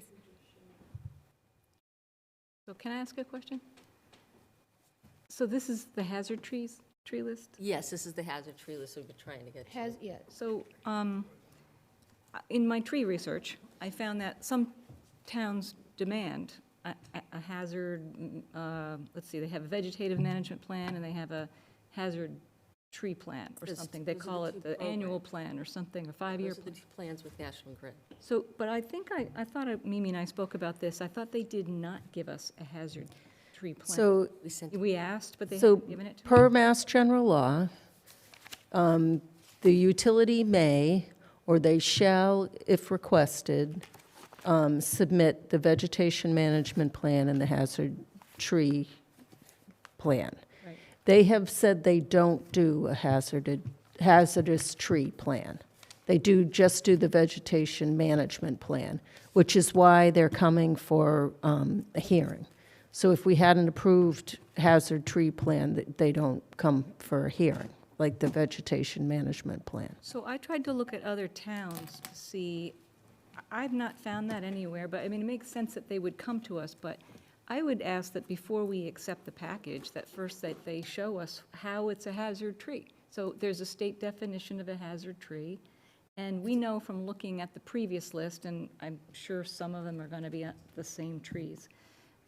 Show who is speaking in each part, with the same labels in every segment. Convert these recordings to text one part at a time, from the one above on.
Speaker 1: please.
Speaker 2: So can I ask a question? So this is the hazard trees, tree list?
Speaker 1: Yes, this is the hazard tree list we've been trying to get to.
Speaker 3: Has, yes.
Speaker 2: So, um, in my tree research, I found that some towns demand a, a- a hazard, mm, uh, let's see, they have a vegetative management plan and they have a hazard tree plan or
Speaker 1: Those-
Speaker 2: something. They
Speaker 1: those are the
Speaker 2: call
Speaker 1: two
Speaker 2: it the annual plan or something, a five-year
Speaker 1: Those are
Speaker 2: plan.
Speaker 1: the two plans with National Grid.
Speaker 2: So, but I think I, I thought, I- Mimi and I spoke about this, I thought they did not give us a hazard tree plan.
Speaker 4: So,
Speaker 1: We sent,
Speaker 2: We asked, but they
Speaker 4: so
Speaker 2: haven't given it to us.
Speaker 4: per Mass General Law, um, the utility may, or they shall, if requested, um, submit the vegetation management plan and the hazard tree plan.
Speaker 2: Right.
Speaker 4: They have said they don't do a hazarded, hazardous tree plan. They do, just do the vegetation management plan, which is why they're coming for um, a hearing. So if we had an approved hazard tree plan, th- they don't come for a hearing, like the vegetation management plan.
Speaker 2: So I tried to look at other towns to see, I- I've not found that anywhere, but I mean, it makes sense that they would come to us, but I would ask that before we accept the package, that first that they show us how it's a hazard tree. So there's a state definition of a hazard tree, and we know from looking at the previous list, and I'm sure some of them are gonna be uh, the same trees,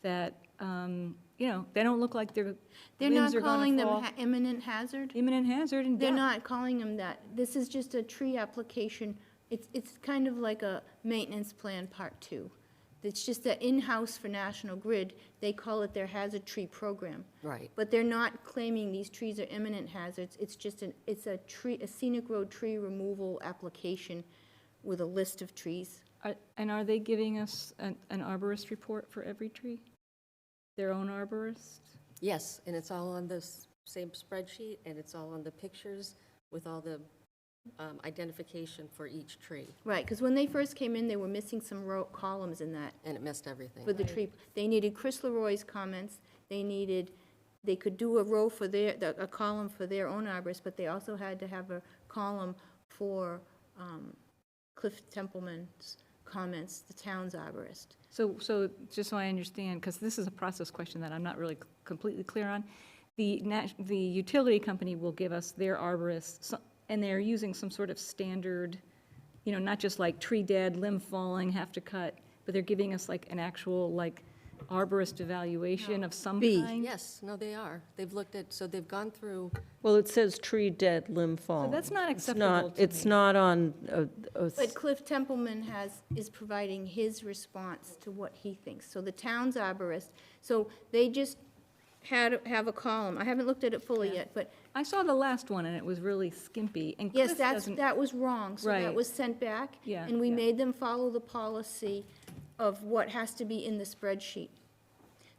Speaker 2: that, um, you know, they don't look like they're,
Speaker 3: They're
Speaker 2: limbs
Speaker 3: not
Speaker 2: are gonna
Speaker 3: calling them
Speaker 2: fall.
Speaker 3: ha- imminent hazard?
Speaker 2: Imminent hazard and
Speaker 3: They're
Speaker 2: death.
Speaker 3: not calling them that. This is just a tree application. It's, it's kind of like a maintenance plan part two. It's just that in-house for National Grid, they call it their hazard tree program.
Speaker 1: right.
Speaker 3: But they're not claiming these trees are imminent hazards. It's just an, it's a tree, a scenic road tree removal application with a list of trees.
Speaker 2: Are- And are they giving us an an arborist report for every tree? Their own arborist?
Speaker 1: Yes, and it's all on the s- same spreadsheet, and it's all on the pictures with all the um, identification for each tree,
Speaker 3: Right, because when they first came in, they were missing some row, columns in that
Speaker 1: and it missed everything.
Speaker 3: for the tree. They needed Chris Leroy's comments, they needed, they could do a row for their, the- a column for their own arborist, but they also had to have a column for um, Cliff Templeman's comments, the town's arborist.
Speaker 2: So, so just so I understand, because this is a process question that I'm not really c- completely clear on. The, nat- the utility company will give us their arborist, so- and they're using some sort of standard, you know, not just like tree dead, limb falling, have to cut, but they're giving us like an actual, like, arborist evaluation of some
Speaker 4: Bee.
Speaker 2: kind?
Speaker 1: Yes, no, they are. They've looked at, so they've gone through,
Speaker 4: Well, it says tree dead, limb fallen.
Speaker 2: that's not
Speaker 4: It's
Speaker 2: acceptable to
Speaker 4: It's
Speaker 2: me.
Speaker 4: not on a- a
Speaker 3: But Cliff Templeman has, is providing his response to what he thinks. So the town's arborist, so they just had, have a column. I haven't looked at it fully yet, but
Speaker 2: I saw the last one, and it was really skimpy, and
Speaker 3: Yes,
Speaker 2: Cliff
Speaker 3: that's,
Speaker 2: doesn't
Speaker 3: that was wrong, so that
Speaker 2: Right.
Speaker 3: was sent back.
Speaker 2: Yeah,
Speaker 3: And we
Speaker 2: yeah.
Speaker 3: made them follow the policy of what has to be in the spreadsheet.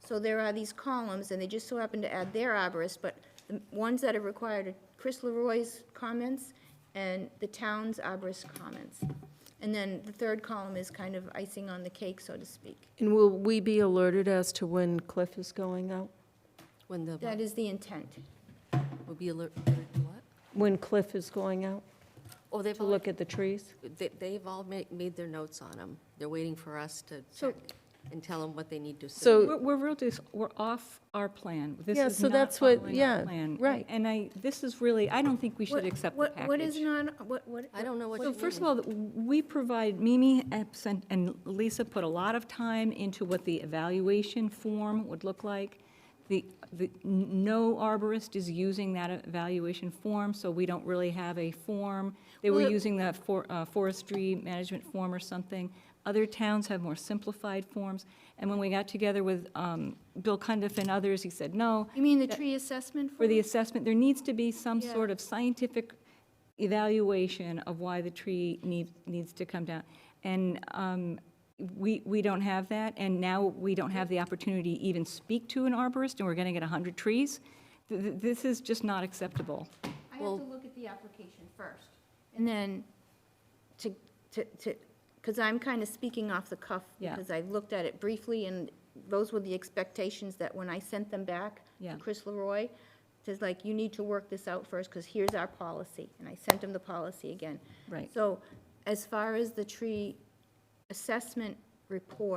Speaker 3: So there are these columns, and they just so happen to add their arborist, but the ones that are required are Chris Leroy's comments and the town's arborist comments. And then the third column is kind of icing on the cake, so to speak.
Speaker 4: And will we be alerted as to when Cliff is going out?
Speaker 1: when the,
Speaker 3: That is the intent.
Speaker 1: will be alert, alert to what?
Speaker 4: When Cliff is going out
Speaker 1: Oh, they've
Speaker 4: to
Speaker 1: all,
Speaker 4: look at the trees?
Speaker 1: they- they've all made, made their notes on them. They're waiting for us to
Speaker 3: So-
Speaker 1: check and tell them what they need to.
Speaker 4: So-
Speaker 2: We're, we're real, dis- we're off our plan. This
Speaker 4: Yeah,
Speaker 2: is
Speaker 4: so
Speaker 2: not
Speaker 4: that's what-
Speaker 2: following our
Speaker 4: yeah,
Speaker 2: plan.
Speaker 4: right.
Speaker 2: And I, this is really, I don't think we
Speaker 3: What-
Speaker 2: should accept the
Speaker 3: what-
Speaker 2: package.
Speaker 3: What is not, what, what?
Speaker 1: I don't know what you
Speaker 2: So
Speaker 1: mean.
Speaker 2: first of all, we provide, Mimi and sent- and Lisa put a lot of time into what the evaluation form would look like. The, the, n- no arborist is using that evaluation form, so we don't really have a form. They were
Speaker 3: Well, it-
Speaker 2: using that for, uh, forestry management form or something. Other towns have more simplified forms. And when we got together with, um, Bill Cundiff and others, he said, no,
Speaker 3: You mean the tree assessment?
Speaker 2: for the
Speaker 3: form?
Speaker 2: assessment, there needs to be some
Speaker 3: Yeah.
Speaker 2: sort of scientific evaluation of why the tree needs, needs to come down. And um, we, we don't have that, and now we don't have the opportunity to even speak to an arborist, and we're going to get 100 trees. Th- th- This is just not acceptable.
Speaker 3: I have to look at the application first. And then to, to, to, because I'm kind of speaking off the cuff.
Speaker 2: Yeah.
Speaker 3: Because I looked at it briefly and those were the expectations that when I sent them back
Speaker 2: Yeah.
Speaker 3: to Chris Leroy, says like, you need to work this out first because here's our policy. And I sent him the policy again.
Speaker 2: Right.
Speaker 3: So as far as the tree assessment report